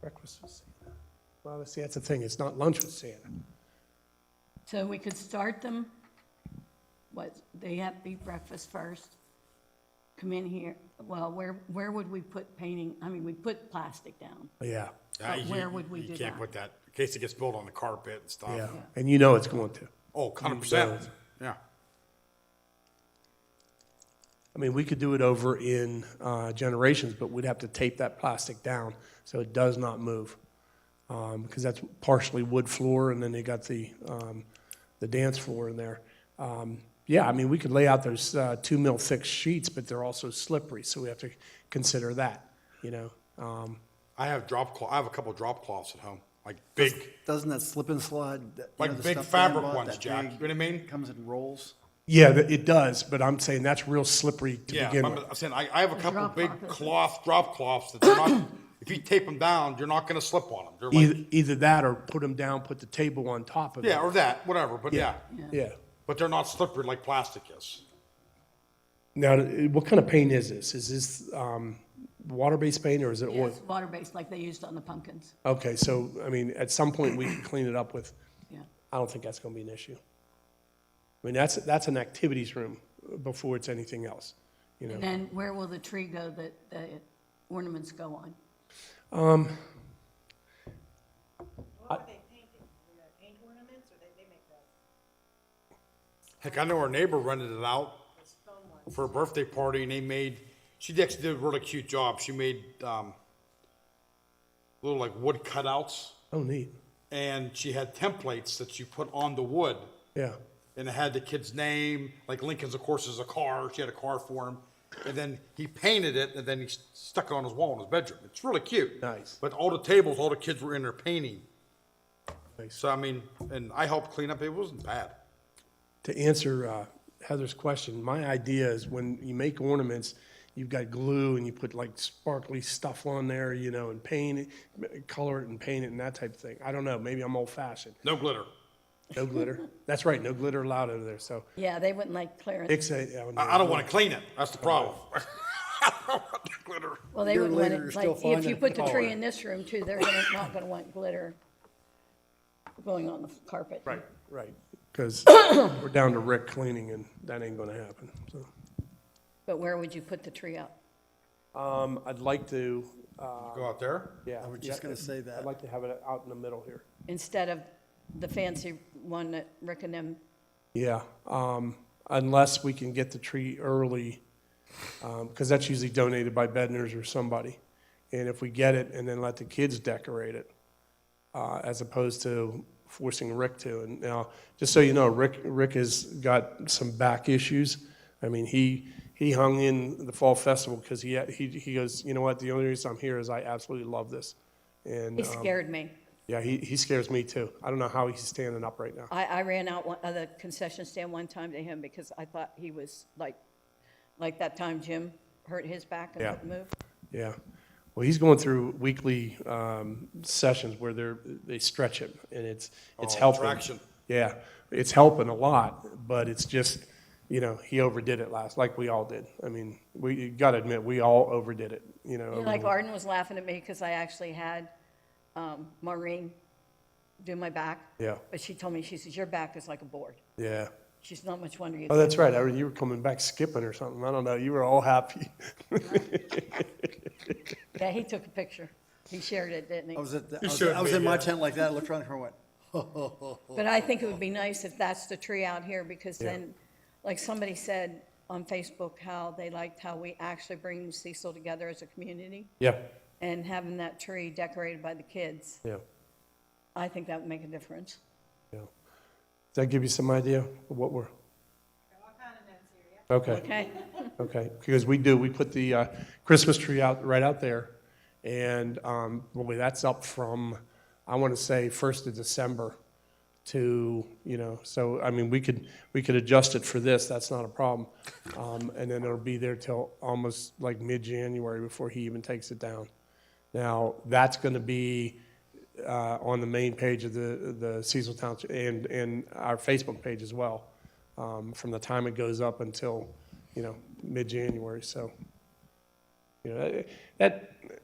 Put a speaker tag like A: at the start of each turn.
A: Breakfast with Santa. Well, see, that's the thing, it's not lunch with Santa.
B: So we could start them, what, they have to eat breakfast first, come in here, well, where, where would we put painting, I mean, we put plastic down.
A: Yeah,
B: But
C: Uh, you-
B: where would we
C: you
B: do
C: can't
B: that?
C: put that, in case it gets spilled on the carpet and
A: yeah,
C: stuff.
A: and you know it's going to.
C: Oh, hundred percent, yeah.
A: I mean, we could do it over in uh, Generations, but we'd have to tape that plastic down so it does not move. Um, Because that's partially wood floor, and then they got the, um, the dance floor in there. Um, Yeah, I mean, we could lay out those uh, two mil thick sheets, but they're also slippery, so we have to consider that, you know? Um,
C: I have drop cloth, I have a couple drop cloths at home, like big,
D: Doesn't that slip and slide? that- you
C: Like
D: know, the
C: big
D: stuff Dan
C: fabric
D: bought,
C: ones,
D: that
C: Jack.
D: big-
C: You know what I mean?
D: Comes in rolls.
A: Yeah, th- it does, but I'm saying that's real slippery to
C: yeah,
A: begin
C: remember,
A: with.
C: I'm saying, I, I have a couple
B: drop
C: big
B: cloth is-
C: cloth, drop cloths that they're not, if you tape them down, you're not gonna slip on them. They're like,
A: Either, either that or put them down, put the table on top of it.
C: yeah, or that, whatever, but yeah,
A: Yeah.
C: but they're not slippery like plastic is.
A: Now, uh, what kind of paint is this? Is this um, water-based paint or is it oil?
B: Yes, water-based, like they used on the pumpkins,
A: Okay, so, I mean, at some point, we can clean it up with,
B: yeah.
A: I don't think that's going to be an issue. I mean, that's, that's an activities room before it's anything else, you know?
B: And then where will the tree go that the ornaments go on?
E: What were they painting? Were they paint ornaments or they, they make those?
C: Heck, I know our neighbor rented it out for a birthday party, and they made. She actually did a really cute job. She made um, little like wood cutouts,
A: Oh, neat.
C: and she had templates that you put on the wood,
A: Yeah,
C: and it had the kid's name. Like Lincoln's, of course, is a car. She had a car for him, and then he painted it, and then he s- stuck it on his wall in his bedroom. It's really cute.
A: Nice.
C: But all the tables, all the kids were in there painting.
A: Nice.
C: So I mean, and I helped clean up. It wasn't bad.
A: to answer uh, Heather's question, my idea is when you make ornaments, you've got glue and you put like sparkly stuff on there, you know, and paint, it, color it and paint it and that type of thing. I don't know, maybe I'm old-fashioned.
C: No glitter.
A: No glitter. That's right, no glitter allowed over there, so.
B: Yeah, they wouldn't like clearance,
A: Nick said, oh, no.
C: I, I don't want to clean it. That's the problem. I don't want the glitter.
B: well, they
D: Year
B: wouldn't want
D: later,
B: it,
D: you're
B: like,
D: still
B: if you
D: finding
B: put the
D: it.
B: tree in this room too, they're gonna, not gonna want glitter going on the carpet. Right.
A: Right, because we're down to Rick cleaning, and that ain't gonna happen, so.
B: But where would you put the tree up?
A: Um, I'd like to, uh,
C: Go out there.
A: yeah.
D: I was just
A: yeah,
D: gonna say that.
A: I'd like to have it out in the middle here.
B: instead of the fancy one that Rick and them,
A: Yeah, um, unless we can get the tree early, um, because that's usually donated by Bednar's or somebody. And if we get it and then let the kids decorate it, uh, as opposed to forcing Rick to. And now, just so you know, Rick, Rick has got some back issues. I mean, he, he hung in the fall festival because he, he, he goes, you know what, the only reason I'm here is I absolutely love this. And,
B: he
A: um,
B: scared me.
A: yeah, he, he scares me too. I don't know how he's standing up right now.
B: I, I ran out one, of the concession stand one time to him because I thought he was like, like that time Jim hurt his back and
A: Yeah.
B: couldn't move.
A: Yeah. Well, he's going through weekly um, sessions where they're, they stretch him, and it's, it's
C: Oh,
A: helping.
C: traction.
A: Yeah, it's helping a lot, but it's just, you know, he overdid it last, like we all did. I mean, we, you gotta admit, we all overdid it, you know. over
B: Like
A: the-
B: Arden was laughing at me because I actually had um, Maureen do my back.
A: Yeah.
B: But she told me, she says, your back is like a board.
A: Yeah.
B: She's not much wonder you.
A: Oh, that's right. I, you were coming back skipping or something. I don't know. You were all happy.
B: Yeah, he took a picture. He shared it, didn't he?
D: I was at, the- I was,
C: showed
D: I was
C: me,
D: in my
C: yeah.
D: tent like that, looked around the corner, went,
B: But I think it would be nice if that's the tree out here, because then, like somebody said on Facebook, how they liked how we actually bring Cecil together as a community,
A: Yeah,
B: and having that tree decorated by the kids,
A: yeah,
B: I think that would make a difference.
A: yeah. Does that give you some idea of what we're,
E: What kind of notes here, yeah?
A: okay?
B: Okay,
A: Okay, because we do, we put the uh, Christmas tree out, right out there, and, um, boy, that's up from, I want to say, first of December to, you know, so, I mean, we could, we could adjust it for this, that's not a problem. Um, And then it'll be there till almost like mid-January before he even takes it down. Now, that's going to be uh, on the main page of the, the Cecil Township and, and our Facebook page as well, um, from the time it goes up until, you know, mid-January, so. You know, that,